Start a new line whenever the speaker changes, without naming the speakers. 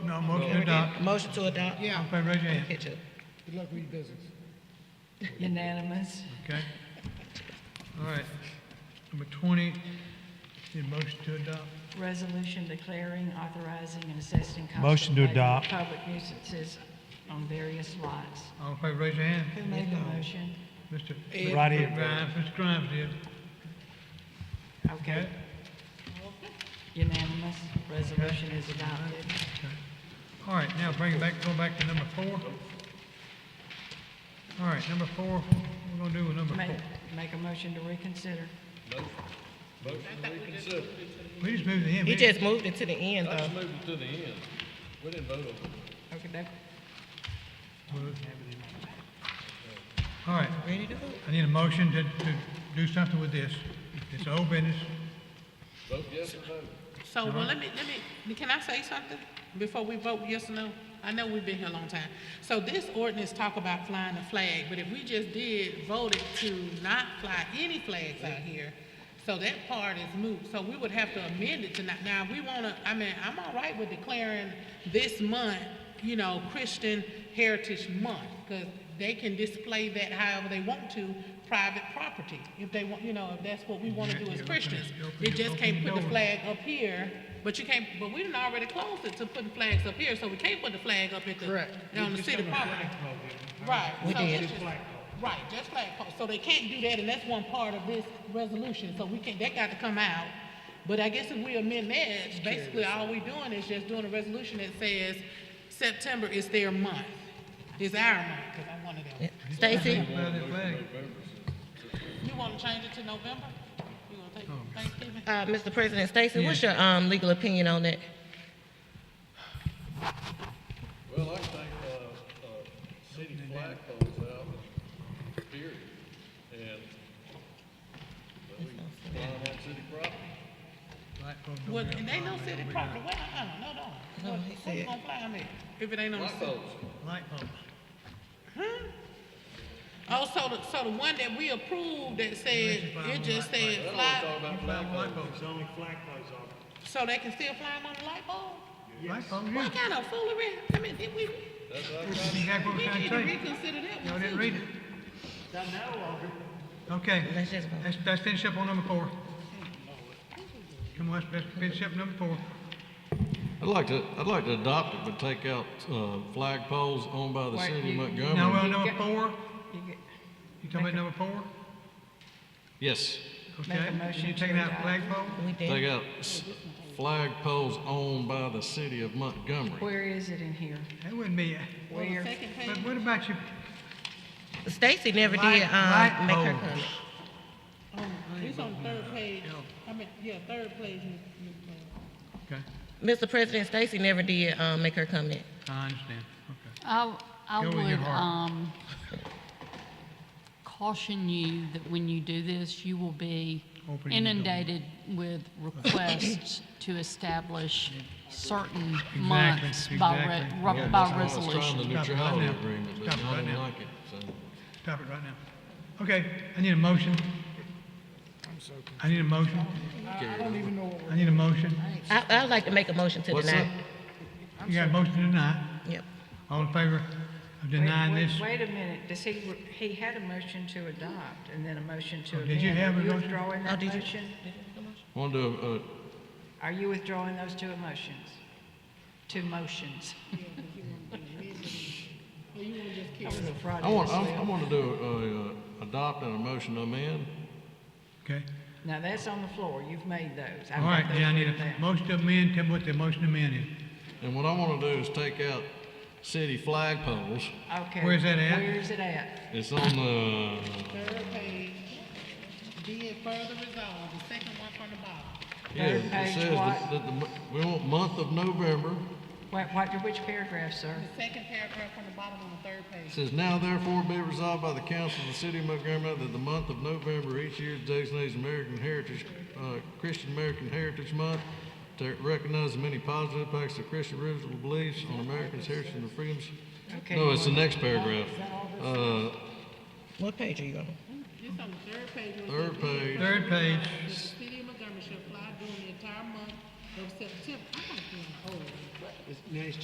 No, motion to adopt.
Motion to adopt?
Yeah.
Everybody raise your hand,
Catch up.
Good luck with your business.
Unanimous.
okay? All right. Number twenty, need a motion to adopt.
Resolution declaring, authorizing, and assessing cost of
Motion to
abatement of
adopt.
Public nuisances on various lots.
All in favor, raise your hand.
Who made the motion?
Mr.
Ed. Right here.
Grimes, Mr. Grimes did.
Okay. Unanimous. Resolution is adopted.
All right, now bring it back, go back to number four. All right, number four, what we gonna do with number
Make,
four?
make a motion to reconsider.
We just moved the end.
He
we-
just moved it to the end, though.
Okay, that,
All right,
Ready to vote?
I need a motion to, to do something with this. It's old business.
So, well, let me, let me, can I say something before we vote yes or no? I know we've been here a long time. So this ordinance talk about flying the flag, but if we just did vote it to not fly any flags out here, so that part is moot. So we would have to amend it tonight. Now, we wanna, I mean, I'm all right with declaring this month, you know, Christian Heritage Month, because they can display that however they want to, private property, if they want, you know, if that's what we wanna do as Christians. It just can't put the flag up here, but you can't, but we done already closed it to putting flags up here, so we can't put the flag up at the,
Correct.
on the city property. Right.
We
so
did.
it's just- Right, just flagpole. So they can't do that, and that's one part of this resolution, so we can't, that got to come out. But I guess if we amend that, basically all we doing is just doing a resolution that says September is their month. It's our month, because I'm one of them.
Stacy?
Fly that flag.
You want to change it to November? You want to take Thanksgiving?
Uh, Mr. President, Stacy, what's your, um, legal opinion on that?
Well, I think, uh, uh, city flagpole's out, period, and but we fly on city property.
Flagpole don't
Well,
have
and
a
they no
flag.
city property, well, uh-uh, no, no. What,
No, he
what you
said-
gonna fly on there if it ain't on the city?
Flagpole's,
Light poles.
Oh, so the, so the one that we approved that said, it just said
I don't wanna
fly,
talk about
Light
flagpoles.
poles.
so they can still fly them on the light bulb?
Light poles, yeah.
What kind of foolery? I mean, did we,
That's what I'm
That's
trying
exactly what
we
I'm
need to
trying to tell you.
reconsider that
Y'all
one
didn't
too.
read it. Okay.
Let's just vote.
Let's, let's finish up on number four. Come on, let's let's finish up number four.
I'd like to, I'd like to adopt it, but take out, uh, flagpoles owned by the
Wait,
city of
you-
Montgomery.
Now, we're on number four,
you get,
you talking about number four?
Yes,
Okay.
Make a
And
motion
You
to
taking out
adopt.
flagpole?
We did.
take out s- flagpoles owned by the city of Montgomery.
where is it in here?
That wouldn't be, it.
On the
Where?
second
but
page,
what about your
Stacy never did,
Light- light
um, make her
poles.
comment.
on- it's on the third page, I mean, yeah, third page, Ms. Ms. Brown.
Okay,
Mr. President, Stacy never did, um, make her comment.
I understand, okay.
I, I
Go with your
would
heart.
um, caution you that when you do this, you will be
Open your door.
inundated with requests to establish certain
Exactly,
months by, re-
exactly.
ru-
Yeah,
by
that's why I was trying
resolution.
to
Stop it right
neutrality
now.
agreement, but
Stop it
I
right
didn't
now.
like it, so.
Stop it right now. Okay, I need a motion. I need a motion. I need a motion.
I, I'd like to make a motion to
What's
deny.
that?
You got a motion to deny?
Yep.
All in favor of
Wait-
denying
wait-
this?
Wait a minute, does he, he had a motion to adopt and then a motion to
Oh,
amend.
did you have a
Are you
motion?
withdrawing
Oh,
that
did you-
motion?
Wanted to, uh,
Are you withdrawing those two emotions? Two motions? That was a Friday
I want,
night
I
sale.
I want to do, uh, uh, adopt and a motion to amend.
Okay.
Now, that's on the floor, you've made those. I've
All right,
got those
yeah, I need
written
a
down.
motion to amend, tell me what the motion to amend is.
And what I want to do is take out city flagpoles.
Okay.
Where's that at?
Where's it at?
It's on the, uh,
Third page, be it further resolved, the second one from the bottom.
yeah,
Third page
it says
what?
that that the, mo- we want month of November.
What, what, which paragraph, sir?
The second paragraph from the bottom on the third page.
It says now therefore be resolved by the council of the city of Montgomery that the month of November each year is designated as American Heritage, uh, Christian American Heritage Month to recognize the many positive impacts of Christian roots and beliefs on Americans' heritage and freedoms.
Okay,
No,
you
it's the next paragraph. Uh,
What page are you on?
It's on the third page. where it says,
Third page.
Third page,
The city of Montgomery shall fly during the entire month of September. I'm gonna be old.
Now he's